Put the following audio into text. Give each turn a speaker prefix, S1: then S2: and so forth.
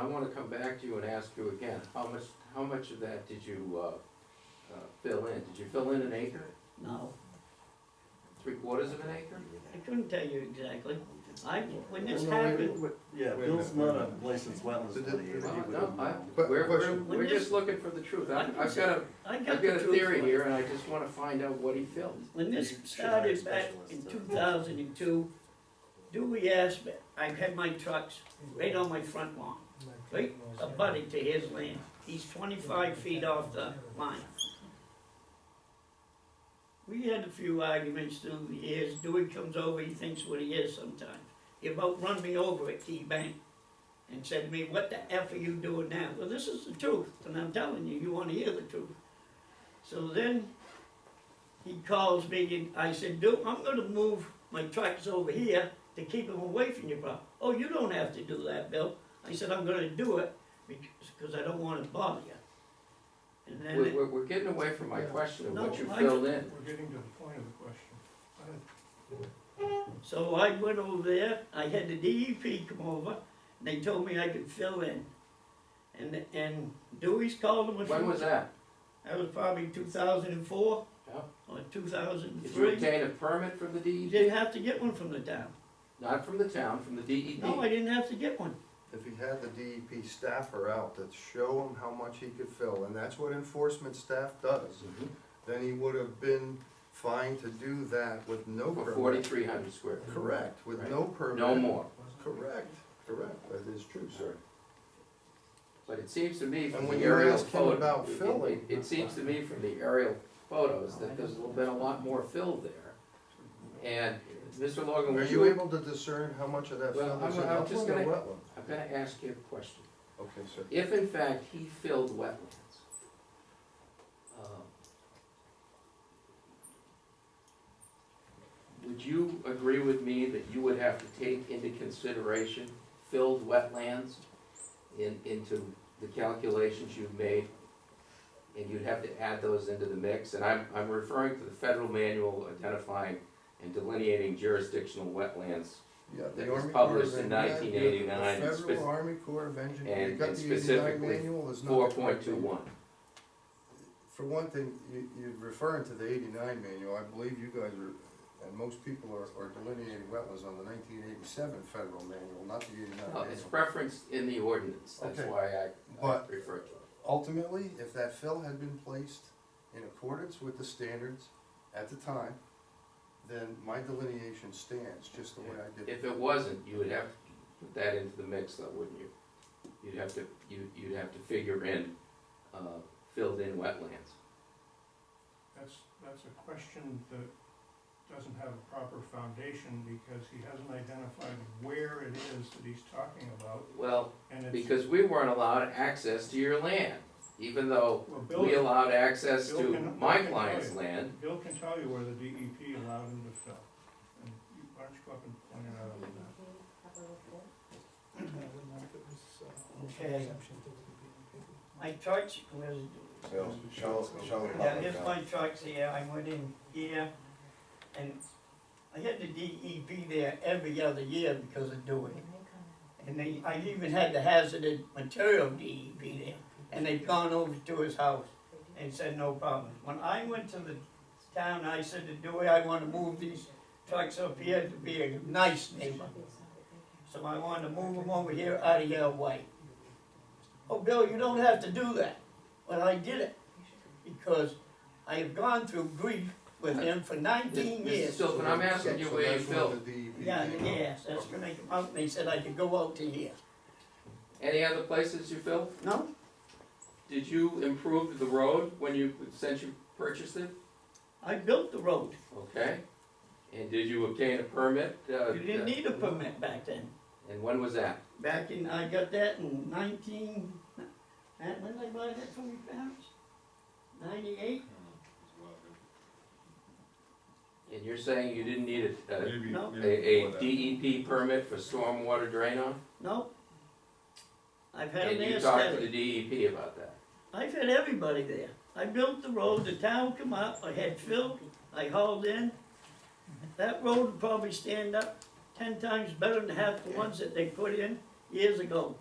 S1: I wanna come back to you and ask you again, how much, how much of that did you, uh, uh, fill in? Did you fill in an acre,
S2: No,
S1: three quarters of an acre?
S2: I couldn't tell you exactly. I, when this
S3: Well, no, wait,
S2: happened,
S3: wait,
S4: Yeah,
S3: Wait a
S4: Bill's
S3: minute,
S4: not
S3: wait a
S4: a licensed wetlands
S3: So did-
S4: delineator.
S1: Well,
S4: He
S1: no,
S4: wouldn't
S1: I,
S4: know.
S3: But-
S1: we're, we're,
S3: question.
S1: we're just looking for the truth. I've, I've got a,
S2: I got
S1: I've
S2: the
S1: got a
S2: truth.
S1: theory
S2: from it.
S1: here and I just wanna find out what he filled.
S2: When this
S4: You should hire
S2: started back in
S4: specialists
S2: two
S4: to-
S2: thousand and two, Dewey asked me, I had my trucks right on my front lawn, right abutting to his land. He's twenty-five feet off the line. We had a few arguments through the years. Dewey comes over, he thinks what he is sometimes. He about run me over at Key Bank and said to me, what the F are you doing now? Well, this is the truth, and I'm telling you, you wanna hear the truth. So then he calls me and I said, Duke, I'm gonna move my tracks over here to keep them away from your property. Oh, you don't have to do that, Bill. I said, I'm gonna do it because, because I don't wanna bother you. And then,
S1: We're,
S2: it-
S1: we're, we're getting away from my question of what you
S2: No, I-
S1: filled in.
S5: We're getting to the point of the question. Go ahead.
S2: so I went over there, I had the DEP come over, and they told me I could fill in. And, and Dewey's called him a few.
S1: When was that?
S2: That was probably two thousand and four.
S1: Yeah.
S2: Or two thousand and
S1: Did you
S2: three.
S1: obtain a permit from the
S2: You
S1: DEP?
S2: didn't have to get one from the town.
S1: Not from the town, from the E
S2: No, I
S1: DEP.
S2: didn't have to get one.
S3: If he had the DEP staffer out to show him how much he could fill, and that's what enforcement staff does,
S1: Mhm.
S3: then he would have been fine to do that with no
S1: For
S3: permit.
S1: forty-three hundred square feet.
S3: Correct, with no permit.
S1: No more.
S3: Correct, correct, that is true, sir.
S1: But it seems to me from
S3: And
S1: the
S3: when you
S1: aerial
S3: ask him
S1: photo.
S3: about
S1: it- it-
S3: filling-
S1: It seems to me from the aerial photos that there's been a lot more filled there. And, Mr. Logan,
S3: Are
S1: were
S3: you
S1: you,
S3: able to discern how much of that
S1: Well,
S3: fill
S1: I'm-
S3: is
S1: I'm
S3: in
S1: just
S3: upland or
S1: gonna-
S3: wetland?
S1: I'm gonna ask you a question.
S3: Okay, sir.
S1: If in fact he filled wetlands, um, would you agree with me that you would have to take into consideration filled wetlands in, into the calculations you've made? And you'd have to add those into the mix? And I'm, I'm referring to the federal manual identifying and delineating jurisdictional wetlands
S3: Yeah,
S1: That
S3: the
S1: was
S3: Army Corps of
S1: published in
S3: Engineers, the
S1: 1989, and
S3: Federal
S1: spec-
S3: Army Corps of Engineers, you
S1: and-
S3: got
S1: and
S3: the eighty-nine
S1: specifically
S3: manual, is not. the
S1: four
S3: correct
S1: point two
S3: manual.
S1: one.
S3: For one thing, you, you're referring to the eighty-nine manual, I believe you guys are, and most people are, are delineating wetlands on the nineteen eighty-seven federal manual, not the eighty-nine
S1: No, Oh, Uh, it's
S3: manual.
S1: preferenced in the ordinance, that's
S3: Okay.
S1: why I, I
S3: But-
S1: refer to it.
S3: Ultimately, if that fill had been placed in accordance with the standards at the time, then my delineation stands, just the way I did it.
S1: If it wasn't, you would have to put that into the mix though, wouldn't you? You'd have to, you, you'd have to figure in, uh, filled in wetlands.
S5: That's, that's a question that doesn't have a proper foundation because he hasn't identified where it is that he's talking about
S1: Well,
S5: and it's.
S1: because we weren't allowed access to your land, even though
S5: Well, Bill,
S1: we allowed access
S5: Bill
S1: to
S5: can-
S1: my
S5: Bill can
S1: client's
S5: tell you.
S1: land.
S5: Bill can tell you where the DEP allowed him to fill. And you, why don't you go up and point it out on that?
S2: Okay. My trucks, where's
S3: So, shall- shall the
S2: Yeah,
S3: public
S2: here's
S3: know?
S2: my trucks here, I went in here, and I had the DEP there every other year because of doing it. And they, I even had the hazardous material DEP there, and they'd gone over to his house and said, no problem. When I went to the town, I said to Dewey, I wanna move these trucks up here to be a nice neighbor. So I wanted to move them over here out of your way. Oh, Bill, you don't have to do that. Well, I did it, because I have gone through grief with him for nineteen
S1: Mr.
S2: years.
S1: Silverman, I'm asking you
S3: So
S1: where you
S3: that's where
S1: filled.
S3: the DEP
S2: Yeah,
S3: came up.
S2: yes, that's when they come out, and they said I could go out to here.
S1: Any other places you filled?
S2: No,
S1: Did you improve the road when you, since you purchased it?
S2: I built the road.
S1: Okay. And did you obtain a permit? uh,
S2: You didn't need a permit back then.
S1: And when was that?
S2: Back in, I got that in nineteen, and when did I buy that from your parents? Ninety-eight?
S1: And you're saying you didn't need a, a,
S2: No.
S1: a- a DEP permit for stormwater drain on?
S2: No. I've had
S1: And
S2: an
S1: you
S2: air
S1: talked
S2: study.
S1: to the DEP about that?
S2: I've had everybody there. I built the road, the town come up, I had filled, I hauled in. That road would probably stand up ten times better than half the ones that they put in years ago.